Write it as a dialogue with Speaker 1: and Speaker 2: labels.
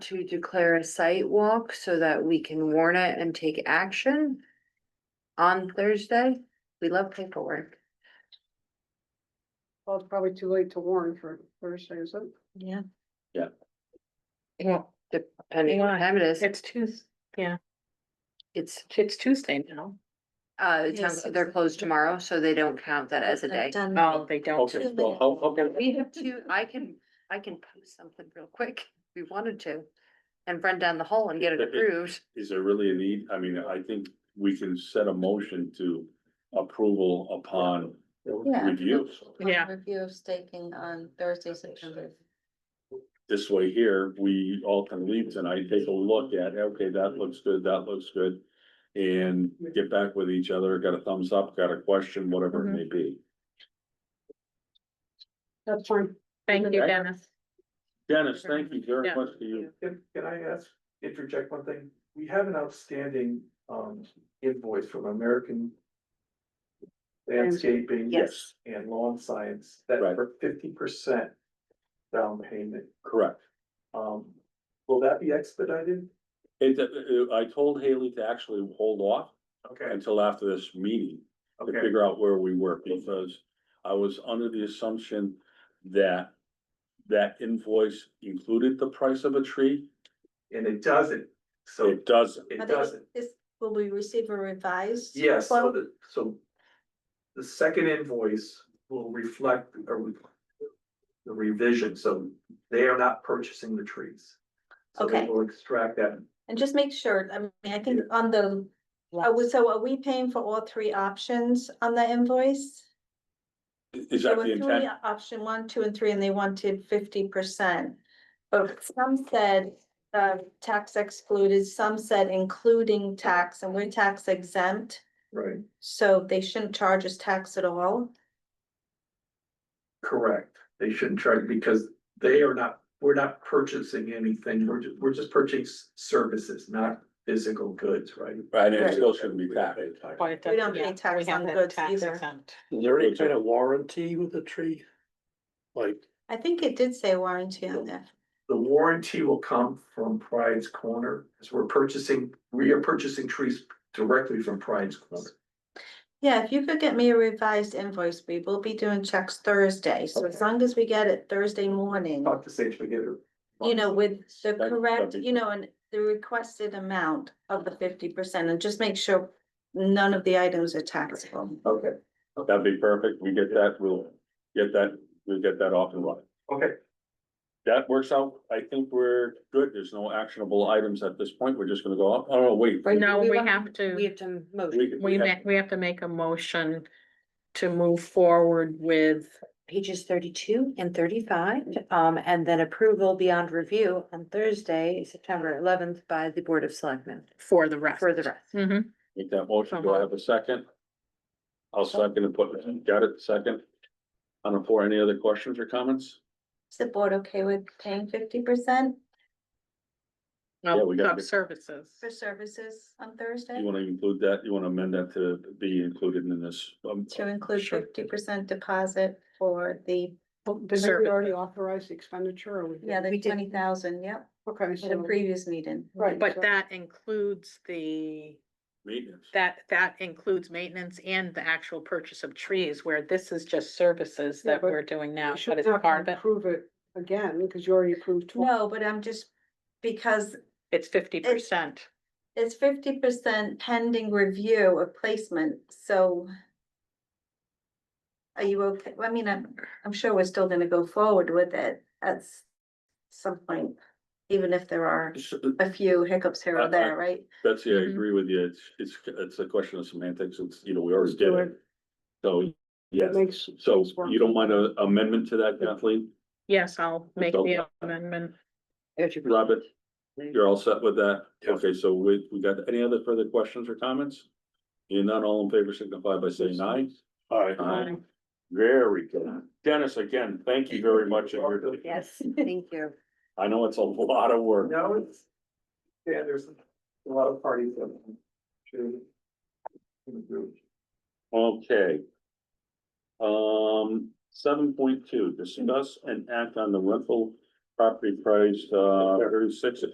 Speaker 1: to declare a site walk so that we can warn it and take action on Thursday. We love paperwork.
Speaker 2: Well, it's probably too late to warn for Thursday, is it?
Speaker 3: Yeah.
Speaker 4: Yeah.
Speaker 3: Yeah,
Speaker 1: Depending on what time it is,
Speaker 3: it's Tues,
Speaker 1: it's,
Speaker 3: it's Tuesday now.
Speaker 1: uh, it sounds-
Speaker 3: Yes.
Speaker 1: they're closed tomorrow, so they don't count that as a day.
Speaker 2: Mm-hmm.
Speaker 3: Oh, they don't.
Speaker 4: Okay, well, how, how can,
Speaker 1: We have two, I can, I can post something real quick, if we wanted to, and run down the hall and get it approved.
Speaker 4: is there really a need? I mean, I think we can set a motion to approval upon review.
Speaker 3: Yeah.
Speaker 5: Review of staking on Thursday, September.
Speaker 4: This way here, we all can leave tonight, take a look at, okay, that looks good, that looks good. And get back with each other, got a thumbs up, got a question, whatever it may be.
Speaker 2: That's fine.
Speaker 3: Thank you, Dennis.
Speaker 4: Dennis, thank you very
Speaker 3: Yeah.
Speaker 4: much to you.
Speaker 6: Can, can I ask, interject one thing? We have an outstanding, um, invoice from American Landscaping
Speaker 1: Yes.
Speaker 6: and Lawn Science, that
Speaker 4: Right.
Speaker 6: for fifty percent down payment.
Speaker 4: Correct.
Speaker 6: Um, will that be expedited?
Speaker 4: And uh, I told Haley to actually hold off
Speaker 6: Okay,
Speaker 4: until after this meeting. to
Speaker 6: okay,
Speaker 4: figure out where we were, because I was under the assumption that that invoice included the price of a tree.
Speaker 6: and it doesn't, so
Speaker 4: It doesn't.
Speaker 6: it doesn't.
Speaker 5: This, will we receive a revised?
Speaker 6: Yes, so
Speaker 5: quote?
Speaker 6: the, so the second invoice will reflect a re- the revision, so they are not purchasing the trees. So they
Speaker 5: Okay.
Speaker 6: will extract that.
Speaker 5: And just make sure, I mean, I think on the, are we- so are we paying for all three options on the invoice?
Speaker 4: Is
Speaker 5: There
Speaker 4: that the
Speaker 5: were three
Speaker 4: intent?
Speaker 5: Option one, two, and three, and they wanted fifty percent. But some said, uh, tax excluded, some said including tax, and we're tax exempt.
Speaker 6: Right.
Speaker 5: So they shouldn't charge us tax at all.
Speaker 6: Correct, they shouldn't charge because they are not, we're not purchasing anything, we're just, we're just purchasing s- services, not physical goods, right?
Speaker 4: Right, and it still shouldn't be taxed.
Speaker 5: We don't pay tax on goods either.
Speaker 7: Is there any kind of warranty with the tree? Like,
Speaker 5: I think it did say warranty on there.
Speaker 6: The warranty will come from Pride's Corner, as we're purchasing, we are purchasing trees directly from Pride's Corner.
Speaker 5: Yeah, if you could get me a revised invoice, we will be doing checks Thursday, so as
Speaker 6: Okay.
Speaker 5: long as we get it Thursday morning.
Speaker 6: Talk to Sage Spaghetti.
Speaker 5: You know, with the
Speaker 4: That-
Speaker 5: correct,
Speaker 4: that'd be
Speaker 5: you know, and the requested amount of the fifty percent, and just make sure none of the items are taxable.
Speaker 6: Okay,
Speaker 4: That'd be perfect. We get that, we'll get that, we'll get that off and running.
Speaker 6: okay.
Speaker 4: That works out. I think we're good. There's no actionable items at this point. We're just gonna go up. Oh, no, wait.
Speaker 1: Right,
Speaker 3: No, we
Speaker 1: want-
Speaker 3: have to-
Speaker 1: We have to motion.
Speaker 4: We,
Speaker 3: We
Speaker 4: we
Speaker 3: ma-
Speaker 4: have-
Speaker 3: we have to make a motion to move forward with,
Speaker 1: pages thirty-two and thirty-five, um, and then approval beyond review on Thursday, September eleventh by the Board of Selectmen
Speaker 3: for the rest.
Speaker 1: for the rest.
Speaker 3: Mhm.
Speaker 4: make that motion. Do I have a second? I'll second and put, got it, second. On the floor, any other questions or comments?
Speaker 5: Is the board okay with paying fifty percent
Speaker 4: Yeah, we gotta
Speaker 3: Of
Speaker 4: be-
Speaker 3: services.
Speaker 5: for services on
Speaker 4: You
Speaker 5: Thursday?
Speaker 4: wanna include that, you wanna amend that to be included in this, um,
Speaker 5: To include
Speaker 4: Sure.
Speaker 5: fifty percent deposit for the,
Speaker 2: Did we already authorize the expenditure or we?
Speaker 5: yeah,
Speaker 2: didn't?
Speaker 5: the
Speaker 1: We did-
Speaker 5: twenty thousand, yep,
Speaker 2: Okay,
Speaker 5: at a
Speaker 2: so.
Speaker 5: previous meeting.
Speaker 2: Right.
Speaker 3: But
Speaker 2: so-
Speaker 3: that includes the,
Speaker 4: maintenance.
Speaker 3: that, that includes maintenance and the actual purchase of trees, where this is just services
Speaker 2: Yeah,
Speaker 3: that
Speaker 2: but
Speaker 3: we're doing
Speaker 2: you
Speaker 3: now,
Speaker 2: should
Speaker 3: but it's
Speaker 2: not
Speaker 3: part of it.
Speaker 2: Approve it again, because you already approved twice.
Speaker 5: No, but I'm just, because
Speaker 3: It's fifty percent.
Speaker 5: It's fifty percent pending review of placement, so. Are you okay? I mean, I'm, I'm sure we're still gonna go forward with it at s- some point, even if there are a few hiccups here
Speaker 4: I- I-
Speaker 5: or there, right?
Speaker 4: uh, Betsy, I
Speaker 3: Mhm.
Speaker 4: agree with you. It's, it's, it's a question of semantics. It's, you know, we already
Speaker 2: Let's do
Speaker 4: did it. So, yes,
Speaker 2: It makes,
Speaker 4: so
Speaker 2: it's worth
Speaker 4: you don't mind an amendment to that, Kathleen?
Speaker 3: Yes, I'll make
Speaker 4: all
Speaker 3: the
Speaker 4: about-
Speaker 3: amendment.
Speaker 4: Robert, you're all set with that?
Speaker 7: Yeah.
Speaker 4: Okay, so we, we got any other further questions or comments? You're not all in favor, signify by saying aye.
Speaker 7: alright,
Speaker 4: Aye. Very good. Dennis, again, thank you very much. and you're-
Speaker 1: Yes, thank you.
Speaker 4: I know it's a lot of work.
Speaker 6: No, it's, yeah, there's a lot of parties that. should- should do.
Speaker 4: Okay. Um, seven point two, discuss and act on the rental property price, uh, thirty-six